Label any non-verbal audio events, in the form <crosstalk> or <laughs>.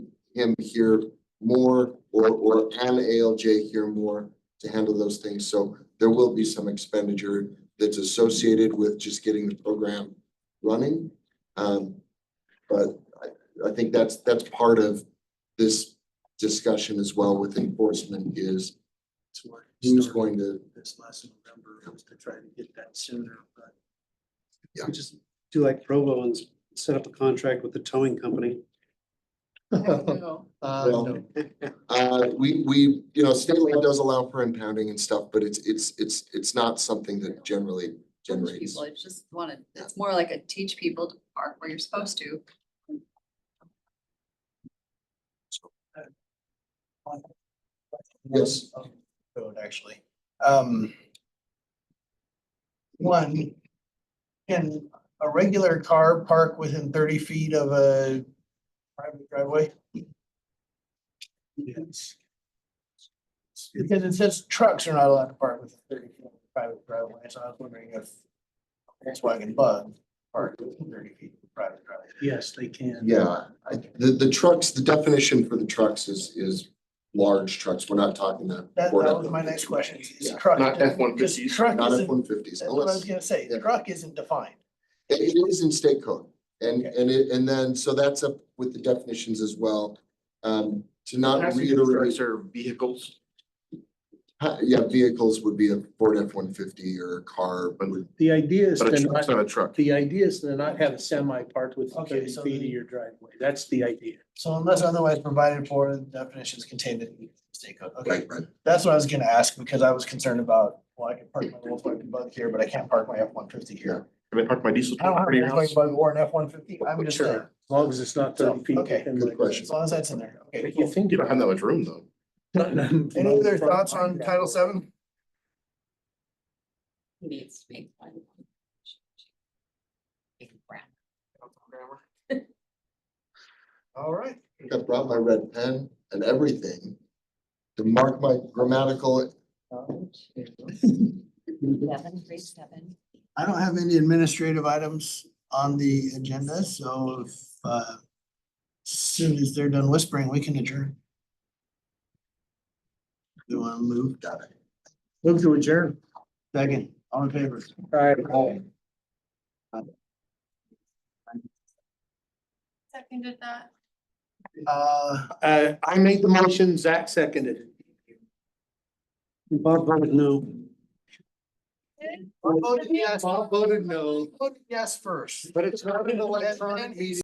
him hear more or, or an ALJ hear more to handle those things. So there will be some expenditure that's associated with just getting the program running. Um, but I, I think that's, that's part of this discussion as well with enforcement is That's why I who's started going to, This last November was to try to get that sooner, but. Yeah. we Just do like Provo and s- set up a contract with the towing company. Uh, Well- no. uh, we, we, you know, state law does allow for impounding and stuff, but it's, it's, it's, it's not something that generally teach generates. people, it's just wanna, it's more like a teach people to park where you're supposed to. Yes. Code actually. Um. One. Can a regular car park within thirty feet of a private driveway? Because it says trucks are not allowed to park within thirty feet of a private driveway, so I was wondering if Volkswagen Bug parked within thirty feet of a private driveway. Yes, they can. Yeah, I, the, the trucks, the definition for the trucks is, is large trucks. We're not talking that. That, Ford that was my F-150. next question. is Yeah, truck- not F-150s. because Truck Not F isn't, one fifties, that's what I was unless, gonna say, yeah. truck isn't defined. it it is in state code. And, Okay. and it, and then, so that's up with the definitions as well. Um, to not Passenger trucks reiterate, are vehicles, uh, yeah, vehicles would be a Ford F one fifty or a car, but with- The idea is but a to truck's not, not a truck. the idea is to not have a semi parked within Okay, thirty so feet of then- your driveway. That's the idea. So unless otherwise provided for, the definitions contained in the state code. Okay, right, right. that's what I was gonna ask because I was concerned about, well, I can park my Volkswagen Bug here, but I can't park my F one fifty here. I mean, park my diesel. I don't have a in front of your house. Volkswagen Bug or an F one fifty. I'm just Sure. saying, As long as it's not thirty feet. Okay, within good my- question. as long as that's in there. Okay. But You think You don't about have that much room though. it. Any <laughs> other thoughts on Title Seven? Needs to be. Brown. All right. I think I brought my red pen and everything to mark my grammatical. Seven, three, seven. I don't have any administrative items on the agenda, so if, uh, soon as they're done whispering, we can adjourn. Do you want to move? Got it. Move to adjourn. Second, all in favor? All right. Seconded that. Uh, Uh, I made the motion, Zach seconded it. Bob voted no. voted yes. Bob voted no, voted yes first. but it's not an electronic meeting.